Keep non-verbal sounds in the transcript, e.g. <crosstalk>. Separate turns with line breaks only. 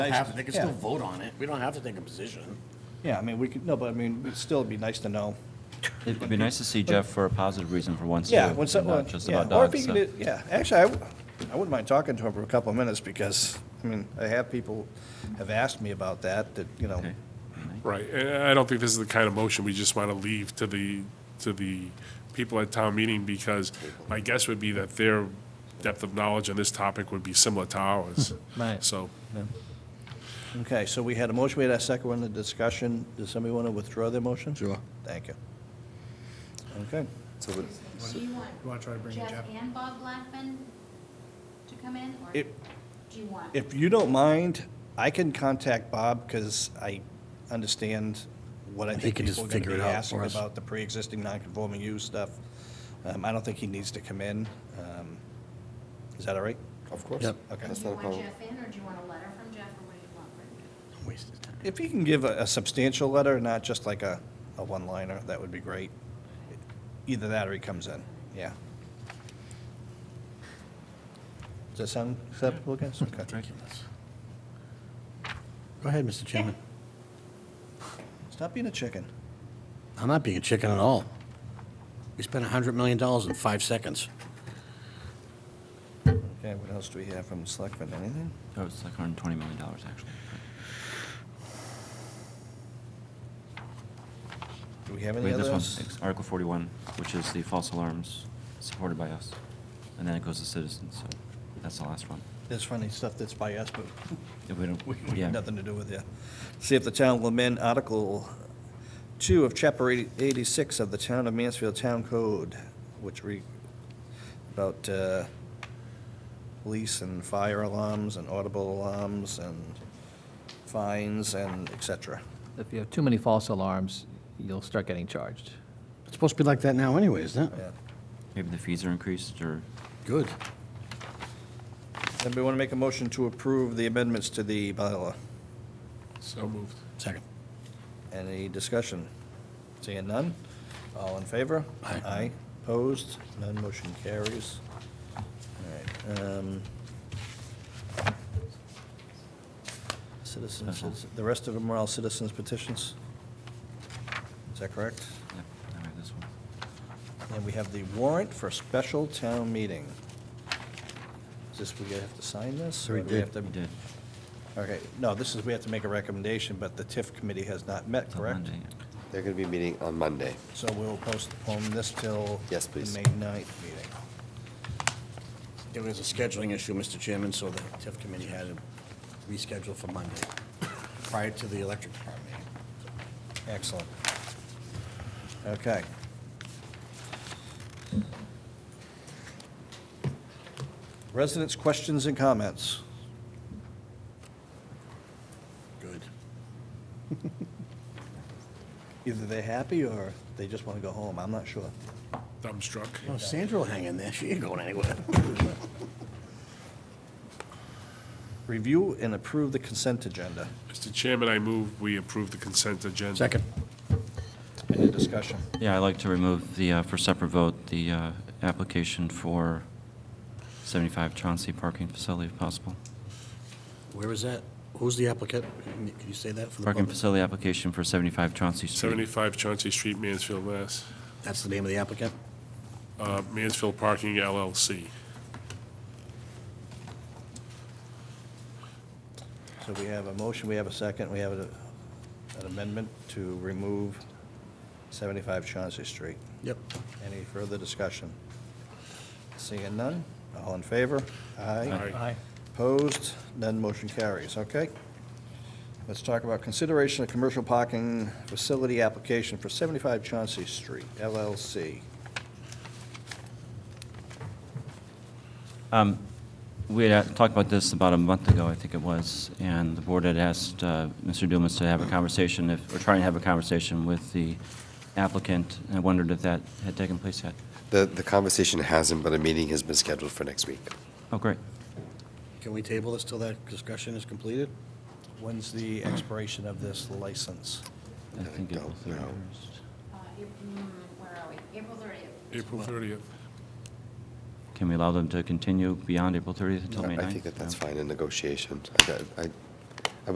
have, they can still
Yeah.
vote on it. We don't have to take a position.
Yeah, I mean, we could, no, but I mean, it'd still be nice to know.
It'd be nice to see Jeff for a positive reason for once, too,
Yeah, when
and
someone,
not just
yeah,
about
or if he
dogs. so.
could, yeah, actually, I, w- I wouldn't mind talking to him for a couple of minutes because, I mean, I have people have asked me about that, that, you know,
Okay.
Right, and I don't think this is the kind of motion we just want to leave to the, to the people at town meeting, because my guess would be that their depth of knowledge on this topic would be similar to ours.
Right.
So,
okay, so we had a motion, we had a second one, the discussion, does somebody want to withdraw their motion?
Sure.
Thank you. Okay,
So would-
Do you want
You want to try to bring in
Jeff
Jeff?
and Bob Blackman to come in, or
if,
do you want?
if you don't mind, I can contact Bob because I understand what I
He
think
can just
people are going to
figure it
be
out
asking
for us.
about the pre-existing non-conforming use stuff. Um, I don't think he needs to come in. Um, Is that all right?
Of course. Yep.
Okay.
Do
That's
you
not a
want
problem.
Jeff in, or do you want a letter from Jeff, or what do you want from Jeff?
If he can give a a substantial letter, not just like a, a one-liner, that would be great. Either that or he comes in, yeah. Does that sound acceptable, guys? Okay.
Go ahead, Mr. Chairman.
Stop being a chicken.
I'm not being a chicken at all. We spent $100 million in five seconds.
Okay, what else do we have from Selectmen, anything?
Oh, it's like $120 million, actually.
Do we have
We
any
have this
other?
one, it's Article 41, which is the false alarms, supported by us. And then it goes to citizens, so that's the last one.
There's funny stuff that's by us, but
If we don't,
we we
yeah.
have nothing to do with it. See if the town will amend Article 2 of Chapter 80 86 of the Town of Mansfield Town Code, which re, about uh, police and fire alarms and audible alarms and fines and et cetera.
If you have too many false alarms, you'll start getting charged.
It's supposed to be like that now anyway, isn't it?
Yeah.
Maybe the fees are increased, or
Good.
Anybody want to make a motion to approve the amendments to the bylaw?
so moved.
Second.
Any discussion? Seeing none? All in favor?
Aye.
Opposed? None motion carries. All right. um, Citizens, the rest of them are all citizens petitions? Is that correct?
yeah, I have this one.
And we have the warrant for special town meeting. Is this, we have to sign this?
we
or do have
We
to-
did,
Okay, no, this is, we have to make a recommendation, but the TIF committee has not met,
till
correct?
Monday.
They're going to be meeting on Monday.
So we'll postpone this till.
Yes, please.
The May 9th meeting.
There was a scheduling issue, Mr. Chairman, so the TIF committee had to reschedule for Monday, <coughs> prior to the electric department.
Excellent. Okay. Residents' questions and comments.
Good.
Either they're happy or they just want to go home, I'm not sure.
Dumbstruck.
Well, Sandra will hang in there. She ain't going anywhere.
Review and approve the consent agenda.
Mr. Chairman, I move we approve the consent agenda.
Second.
Any discussion?
Yeah, I'd like to remove the, uh, for separate vote, the uh, application for 75 Chauncey parking facility, if possible.
Where is that? Who's the applicant? Can you- can you say that for the
Parking
public?
facility application for 75 Chauncey Street.
75 Chauncey Street, Mansfield, Mass.
That's the name of the applicant?
Uh, Mansfield Parking LLC.
So we have a motion, we have a second, we have a- an amendment to remove 75 Chauncey Street.
Yep.
Any further discussion? Seeing none, all in favor? Aye.
Aye.
Opposed? None motion carries, okay? Let's talk about consideration of commercial parking facility application for 75 Chauncey Street LLC.
Um, We had uh, talked about this about a month ago, I think it was, and the board had asked uh, Mr. Dumas to have a conversation, if- or try and have a conversation with the applicant, and I wondered if that had taken place yet.
The, the conversation hasn't, but a meeting has been scheduled for next week.
Oh, great.
Can we table this till that discussion is completed?
When's the expiration of this license?
I think it
don't
was
know.
31st.
Uh, April- mm, Where are we? April thirtieth.
April 30th.
Can we allow them to continue beyond April 30th until May 9th?
I think that that's
No.
fine in negotiations. I, I-